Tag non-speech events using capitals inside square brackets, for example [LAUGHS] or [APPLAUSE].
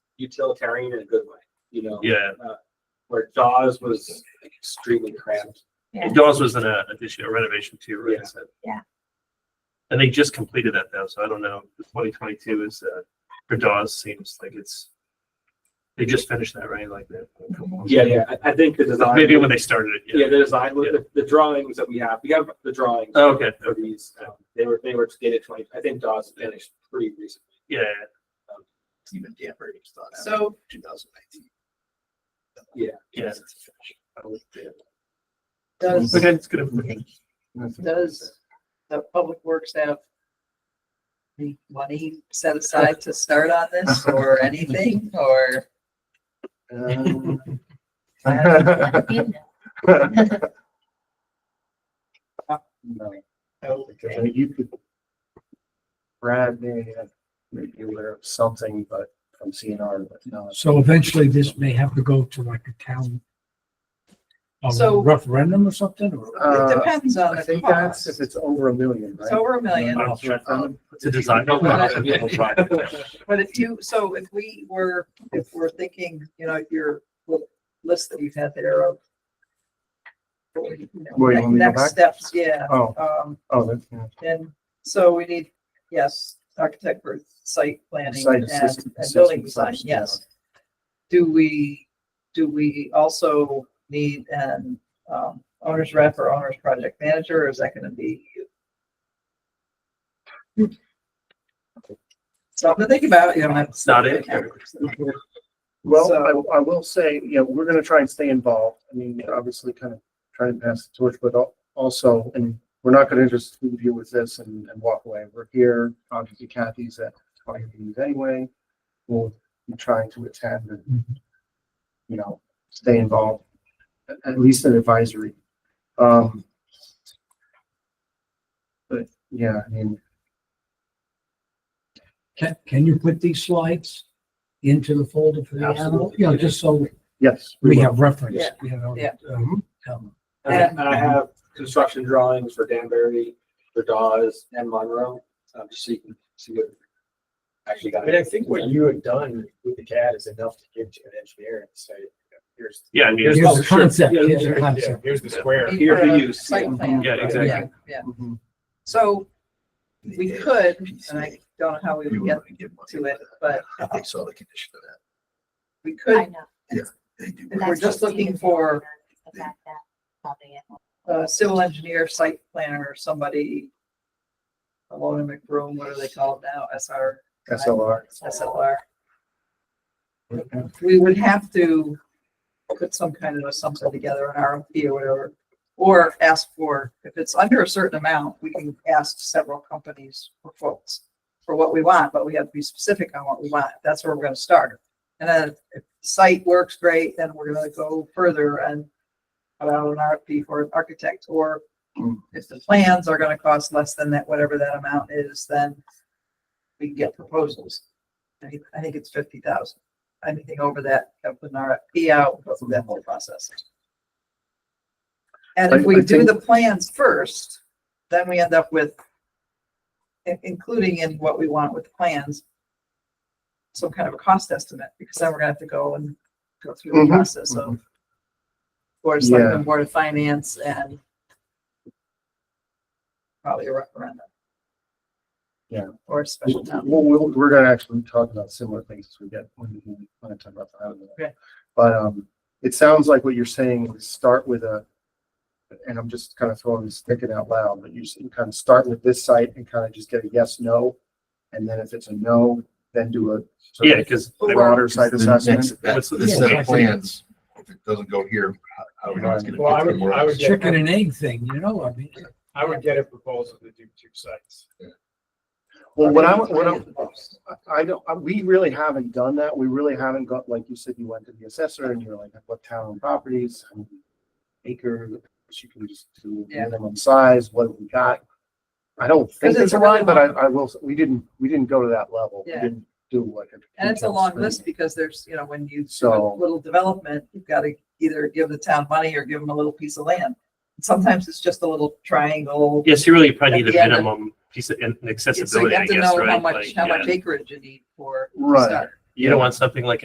utilitarian in a good way, you know? Yeah, Where Dawes was extremely cramped. and Dawes was in a addition, a renovation too, right? Yeah. So- Yeah. And they just completed that though, so I don't know. Twenty twenty-two is, uh, for Dawes seems like it's, they just finished that, right? Like that. Yeah, yeah, I, I think the design. Maybe when they started it, Yeah, yeah. the design, with the, the drawings that we have, we have the drawings. Oh, Okay, For these, um, they were, they were dated twenty, I think Dawes finished pretty recently. yeah, Um, Even damper it was thought out. So- Two thousand nineteen. Yeah. yeah. Does, Okay, it's good. information. [LAUGHS] does the public works have any money set aside to start on this [LAUGHS] or anything, or? [LAUGHS] Because I mean, you could. uh, Brad may have made you aware of something, but from CNR, but no. So eventually this may have to go to like a town. A So- referendum or something or? Uh, It depends on I the think that's cost. if it's over a million, It's right? Um, over a million, I'll check on It's a design. No, no, no, yeah. [LAUGHS] but if you, so if we were, if we're thinking, you know, your little list that you've had there of. you know, Where you want me to go Next steps, yeah, Oh, um, oh, that's, yeah. and so we need, yes, architect for site planning Site and assist- and building assessment design, first, yeah. yes. Do we, do we also need an um, owner's rep or owner's project manager, or is that gonna be? Something to think about, you don't have. It's not in here. Well, So- I, I will say, you know, we're gonna try and stay involved. I mean, obviously kind of try and pass the torch, but al- also, and we're not gonna just leave you with this and, and walk away. We're here, obviously Kathy's at all your meetings anyway. We'll be trying to attend and, Mm-hmm. you know, stay involved, at, at least an advisory. Um, but yeah, I mean, Can, can you put these slides into the folder for the animal? Absolutely. You know, just so yes. we will. have reference, Yeah. you know. Yeah. um, um, And I- and I have construction drawings for Danbury, for Dawes and Monroe, um, just so you can see what actually got. I mean, I think what you have done with the CAD is enough to give to an engineer and say, here's. Yeah, I mean, Here's it's- the concept, Yeah, here's the yeah, concept. Here's the square. Here for use. Site plan. Yeah, exactly. Yeah, yeah. Mhm. So we could, and I don't know how we would get to it, but I saw the condition of that. we I could, know. They do. but We're that's just the looking thing for- is The fact that probably it won't uh, civil engineer, site planner, or somebody. Alone in the room, what are they called now? SR, SLR. SLR. We would have to put some kind of assumption together, an RFP or whatever. Or ask for, if it's under a certain amount, we can ask several companies for quotes for what we want, but we have to be specific on what we want. That's where we're gonna start. And then if site works great, then we're gonna go further and put out an RFP for an architect, or Hmm. if the plans are gonna cost less than that, whatever that amount is, then we can get proposals. I think, I think it's fifty thousand. Anything over that, have an RFP out, go through that whole process. And if I- we I do think- the plans first, then we end up with in- including in what we want with the plans, some kind of a cost estimate, because then we're gonna have to go and go through the Mhm. process of Board of Selectmen, Board of Finance, and probably a referendum. Yeah. Or a special town. meeting. Well, we'll, we're gonna actually talk about similar things as we get when we, when I talk about that. Okay. But, um, it sounds like what you're saying is start with a, and I'm just kind of throwing this thinking out loud, but you s- you kind of start with this site and kind of just get a yes, no. And then if it's a no, then do a. sort Yeah, of because. Broader site assessment. What's the- This set Yeah. of plans, if it doesn't go here, how do we know it's gonna Well, I fit would, somewhere I would else? get, Chicken and egg thing, you know, I mean. I would get a proposal to do two sites. Well, what I, what I, I don't, I- we really haven't done that. We really haven't got, like you said, you went to the assessor and you're like, what town and properties? how many Acre, you can just do Yeah. minimum size, what have we got? I don't think Because there's it's a really line, but I, long. I will, s- we didn't, we didn't go to that level. We Yeah. didn't do like. And it's a detailed long study. list because there's, you know, when you do a So- little development, you've got to either give the town money or give them a little piece of land. Sometimes it's just a little triangle. Yes, you really probably need a Yeah, but- minimum piece of in- So you accessibility, I have to guess, know how right? much, Like, how much yeah. acreage you need for. to Right. start. You don't want something like